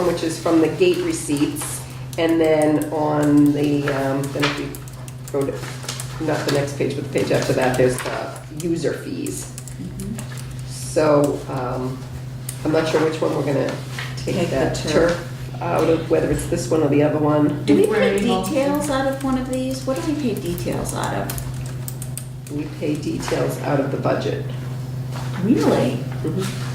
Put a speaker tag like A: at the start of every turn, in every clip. A: which is from the gate receipts. And then on the, um, then if you go to, not the next page, but the page after that, there's the user fees. So um, I'm not sure which one we're going to
B: Take
A: take
B: the
A: that
B: turf.
A: turf out of, whether it's this one or the other one.
B: Do we
C: Where
B: pay
C: we all-
B: details out of one of these? What do we pay details out of?
A: We pay details out of the budget.
B: Really? How come I-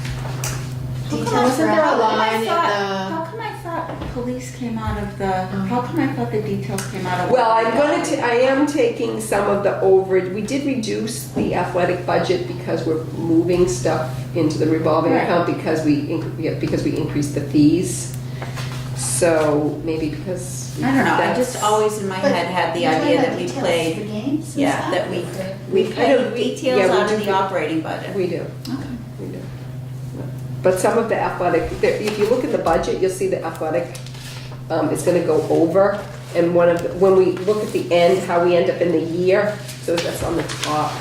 C: Details for
B: how
C: how
B: come I
C: line
B: thought-
C: and
B: How come I thought police came out of the, how come I thought the details came out of?
A: Oh. Well, I'm gonna, ta- I am taking some of the overage, we did reduce the athletic budget because we're moving stuff into the revolving
B: Right.
A: account because we, inc- yeah, because we increased the fees. So maybe because.
B: I don't know, I
A: that's-
B: just always in my
C: But
B: head had the
C: you're talking
B: idea
C: about
B: that we
C: details
B: played,
C: For games and
B: yeah,
C: stuff? Oh,
B: that we,
C: Okay.
B: we
A: know,
B: paid
A: we-
B: details
A: yeah, we
B: out of
A: do.
B: the operating budget.
A: We do,
B: Okay.
A: we do. But some of the athletic, there- if you look at the budget, you'll see the athletic um, is gonna go over. And one of, the- when we look at the end, how we end up in the year, so that's on the top.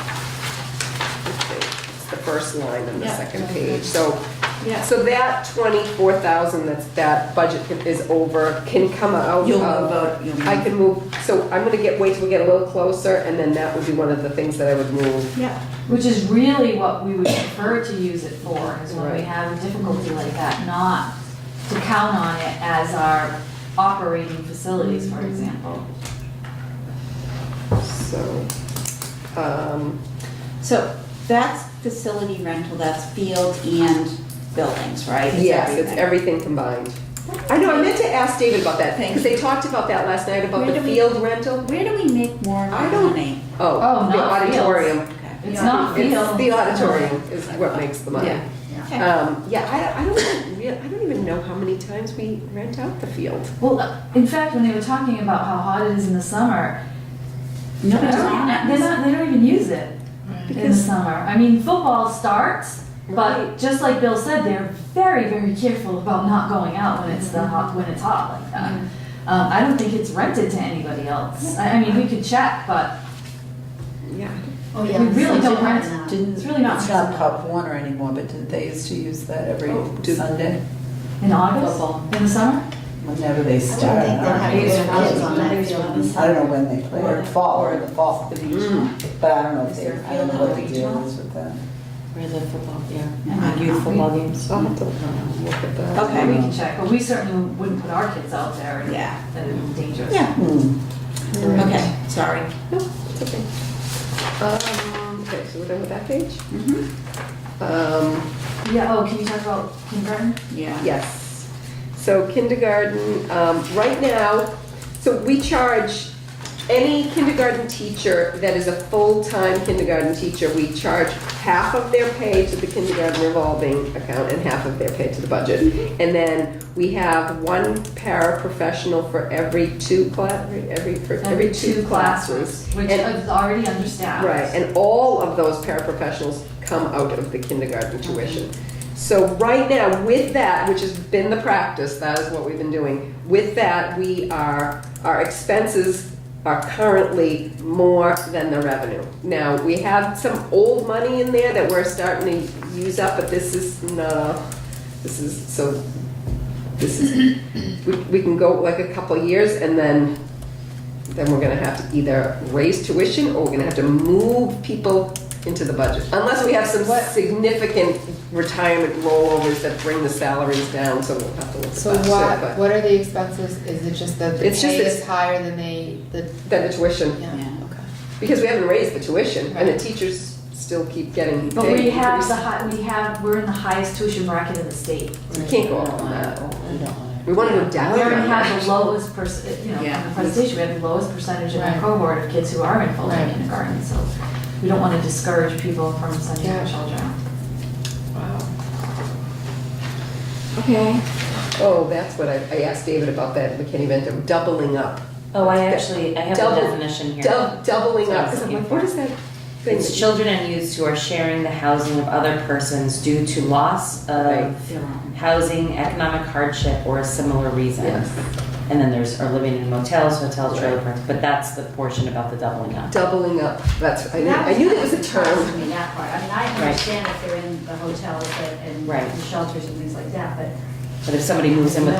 A: It's the first line on the
B: Yeah.
A: second page, so.
B: Yeah.
A: So that twenty-four thousand, that's, that budget can- is over, can come out of.
B: You'll move out, you'll
A: I
B: move.
A: can move, so I'm gonna get, wait till we get a little closer, and then that would be one of the things that I would move.
B: Yeah.
D: Which is really what we would prefer to use it for, is when we
A: Right.
D: have a difficulty like that, not to count on it as our operating facilities, for example.
A: So, um,
B: So that's facility rental, that's field and buildings, right?
A: yes, it's
B: everything.
A: everything combined. I know, I meant to ask David about that, because they talked about that last night, about
B: Where
A: the
B: do we-
A: field rental.
B: Where do we make more
A: I don't-
B: money?
A: Oh,
D: Oh,
A: the
D: not fields.
A: auditorium.
B: Okay.
D: It's not
A: It's
D: field.
A: the auditorium is what makes the money.
B: Yeah. Okay.
A: Um, yeah, I, I don't, rea- I don't even know how many times we rent out the field.
D: Well, uh, in fact, when they were talking about how hot it is in the summer,
B: No,
D: they're
B: it's not.
D: not, they're not- they don't even use it in the
A: Because-
D: summer. I mean, football starts,
A: Right.
D: but just like Bill said, they're very, very careful about not going out when it's the hot, when it's hot like that. Um, I don't think it's rented to anybody else. I, I mean, we could check, but
A: Yeah.
C: Oh,
D: We
C: yeah.
D: really
C: so
D: don't
C: you're
D: want
C: not-
D: to-
E: Didn't,
D: It's really not
E: it's not Pop Warner anymore, but did they used to use that every
A: Oh, do-
E: Sunday?
D: In August? In the summer?
E: Whenever they
C: I
E: start.
C: don't think they'll have
E: I
C: kids on that
B: There's
C: field.
B: one.
E: don't- I don't know when they play, or fall, or in the fall,
A: Mm.
E: but I don't know if
B: Is
E: they,
B: there a
E: I don't know
B: field
E: what the
B: outreach
E: deal
B: hall?
E: is with that.
F: Where the football, yeah,
B: Yeah.
F: and youth football games.
A: I'll have to look at that.
B: Okay.
D: We can check, but we certainly wouldn't put our kids out there and
B: Yeah.
D: that would be dangerous.
B: Yeah.
E: Hmm,
B: Okay, sorry.
A: No, it's okay. Um, okay, so we're done with that page?
B: Mhm.
A: Um,
D: Yeah, oh, can you talk about kindergarten?
B: Yeah.
A: Yes. So kindergarten, um, right now, so we charge any kindergarten teacher that is a full-time kindergarten teacher, we charge half of their pay to the kindergarten revolving account and half of their pay to the budget. And then we have one paraprofessional for every two class, every, for every two classes.
D: Which
A: And-
D: is already understaffed.
A: Right, and all of those paraprofessionals come out of the kindergarten tuition. So right now, with that, which has been the practice, that is what we've been doing, with that, we are, our expenses are currently more than the revenue. Now, we have some old money in there that we're starting to use up, but this is not, a- this is, so, this is, we, we can go like a couple years and then then we're gonna have to either raise tuition or we're gonna have to move people into the budget. Unless we have some significant retirement rollovers that bring the salaries down, so we'll have to look at
G: So
A: that too.
G: what,
A: But
G: what are the expenses? Is it just that the
A: It's just
G: pay
A: it's-
G: is higher than they, the,
A: Then the tuition,
G: yeah,
B: Yeah.
G: okay.
A: because we haven't raised the tuition and the
G: Right.
A: teachers still keep getting
D: But we
A: paid.
D: have the high, we have, we're in the highest tuition bracket in the state.
A: We can't go up on that.
E: we don't want
A: We wanna go down
D: We already
A: on that.
D: have the lowest perc, you know,
B: Yeah.
D: in the presentation, we have the lowest percentage in our
G: Right.
D: cohort of kids who are in full-time
G: Right.
D: kindergarten, so we don't wanna discourage people from sending their
G: Yeah.
D: children.
B: Okay.
A: Oh, that's what I, I asked David about that McKinney Vento, doubling up.
F: Oh, I actually, I have
A: Double-
F: the definition here.
A: Dou- Doubling up,
F: That's
A: because I'm
F: what I'm
A: like, what is that thing?
F: It's children and youths who are sharing the housing of other persons due to loss
A: Right.
F: of housing, economic hardship, or a similar reason.
A: Yes.
F: And then there's, are living in motels, hotels, trailer parks, but that's the portion about the doubling up.
A: Doubling up, that's, I knew, I knew there was a term.
C: I mean, that part, I mean, I understand if they're in the hotels and- and
F: Right.
C: the shelters and things like that, but
F: But if somebody moves in with